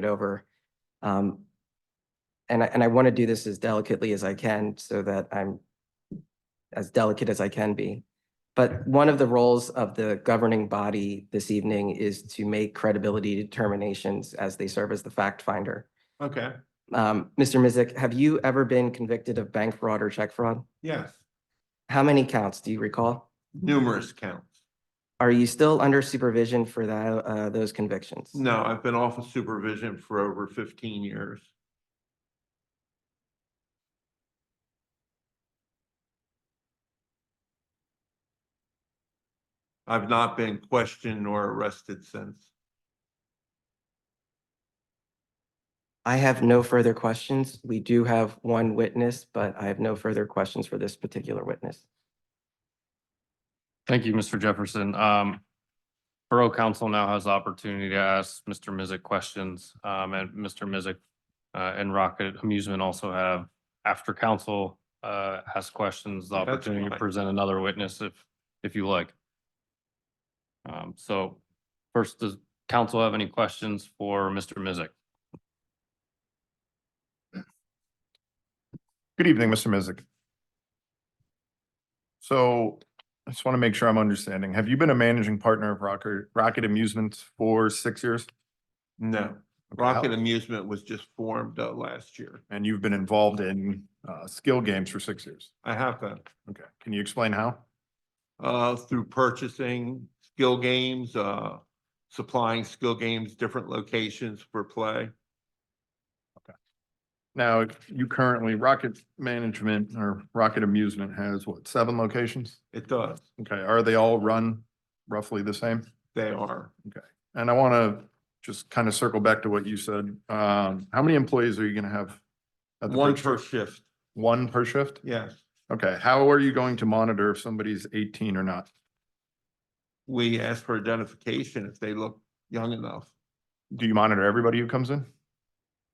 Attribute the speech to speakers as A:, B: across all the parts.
A: it over. Um, and I, and I want to do this as delicately as I can so that I'm as delicate as I can be. But one of the roles of the governing body this evening is to make credibility determinations as they serve as the fact finder.
B: Okay,
A: Um, Mr. Mizik, have you ever been convicted of bank fraud or check fraud?
B: yes,
A: How many counts do you recall?
C: Mm-hmm.
B: numerous counts.
A: Are you still under supervision for that, uh, those convictions?
B: No, I've been off of supervision for over fifteen years. I've not been questioned nor arrested since.
A: I have no further questions. We do have one witness, but I have no further questions for this particular witness.
D: Thank you, Mr. Jefferson. Um, Borough Council now has the opportunity to ask Mr. Mizik questions. Um, and Mr. Mizik uh, and Rocket Amusement also have, after council uh, has questions, the
B: That's
D: opportunity to
B: fine.
D: present another witness if, if you like. Um, so first, does council have any questions for Mr. Mizik?
C: Good evening, Mr. Mizik. So I just want to make sure I'm understanding. Have you been a managing partner of Rocket, Rocket Amusements for six years?
B: No,
C: Okay, how-
B: Rocket Amusement was just formed uh, last year.
C: And you've been involved in uh, skill games for six years?
B: I have been,
C: Okay, can you explain how?
B: uh, through purchasing skill games, uh, supplying skill games, different locations for play.
C: Now, you currently, Rocket Management or Rocket Amusement has what, seven locations?
B: It does.
C: Okay, are they all run roughly the same?
B: They are.
C: And I want to just kind of circle back to what you said. Um, How many employees are you going to have? at the
B: One
C: first-
B: per shift,
C: One per shift?
B: yes.
C: Okay, how are you going to monitor if somebody's eighteen or not?
B: We ask for identification if they look young enough.
C: Do you monitor everybody who comes in?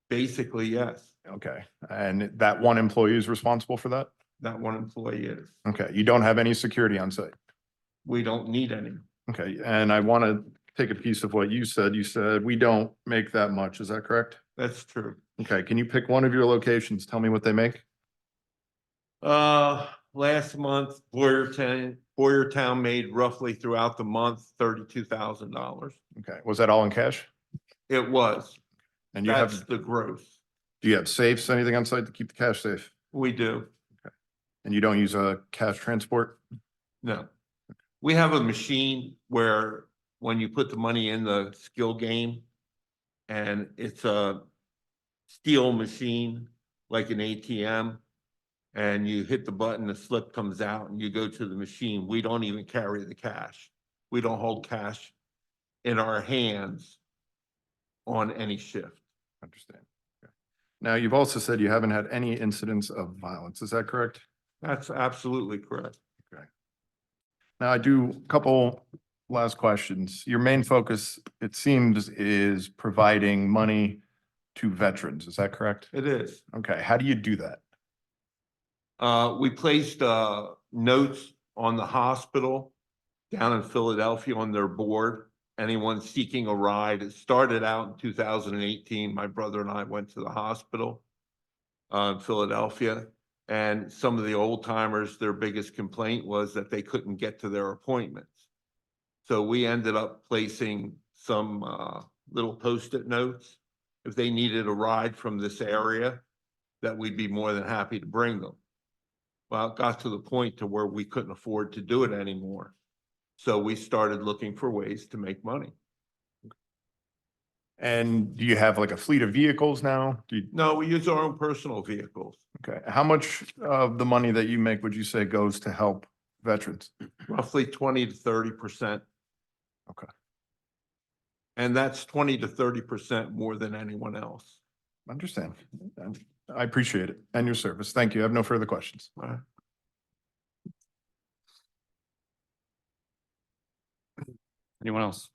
B: Basically, yes,
C: Okay, and that one employee is responsible for that?
B: that one employee is.
C: Okay, you don't have any security on site?
B: We don't need any.
C: Okay, and I want to take a piece of what you said. You said we don't make that much, is that correct?
B: That's true.
C: Okay, can you pick one of your locations? Tell me what they make?
B: Uh, last month, Boyertown, Boyertown made roughly throughout the month thirty-two thousand dollars.
C: Okay, was that all in cash?
B: It was.
C: And you have,
B: That's the gross.
C: do you have safes, anything on site to keep the cash safe?
B: We do.
C: And you don't use a cash transport?
B: No. We have a machine where when you put the money in the skill game and it's a steel machine, like an ATM, and you hit the button, the slip comes out and you go to the machine. We don't even carry the cash. We don't hold cash in our hands on any shift.
C: Understand. Okay. Now, you've also said you haven't had any incidents of violence, is that correct?
B: That's absolutely correct.
C: Now I do a couple last questions. Your main focus, it seems, is providing money to veterans. Is that correct?
B: It is.
C: Okay, how do you do that?
B: Uh, we placed, uh, notes on the hospital down in Philadelphia on their board. Anyone seeking a ride, it started out in two thousand and eighteen. My brother and I went to the hospital uh, in Philadelphia. And some of the old timers, their biggest complaint was that they couldn't get to their appointments. So we ended up placing some, uh, little post-it notes. If they needed a ride from this area, that we'd be more than happy to bring them. Well, it got to the point to where we couldn't afford to do it anymore. So we started looking for ways to make money.
C: And do you have like a fleet of vehicles now? Do you,
B: No, we use our own personal vehicles,
C: okay, how much of the money that you make would you say goes to help veterans?
B: roughly twenty to thirty percent.
C: Okay.
B: And that's twenty to thirty percent more than anyone else.
C: Understand. And I appreciate it and your service. Thank you. I have no further questions.
B: All right.
D: Anyone else?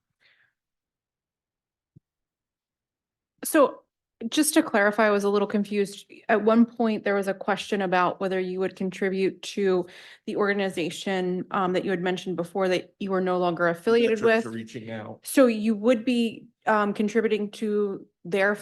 E: So just to clarify, I was a little confused. At one point, there was a question about whether you would contribute to the organization um, that you had mentioned before that you were no longer affiliated
B: Veterans
E: with.
B: Reaching out.
E: So you would be um, contributing to their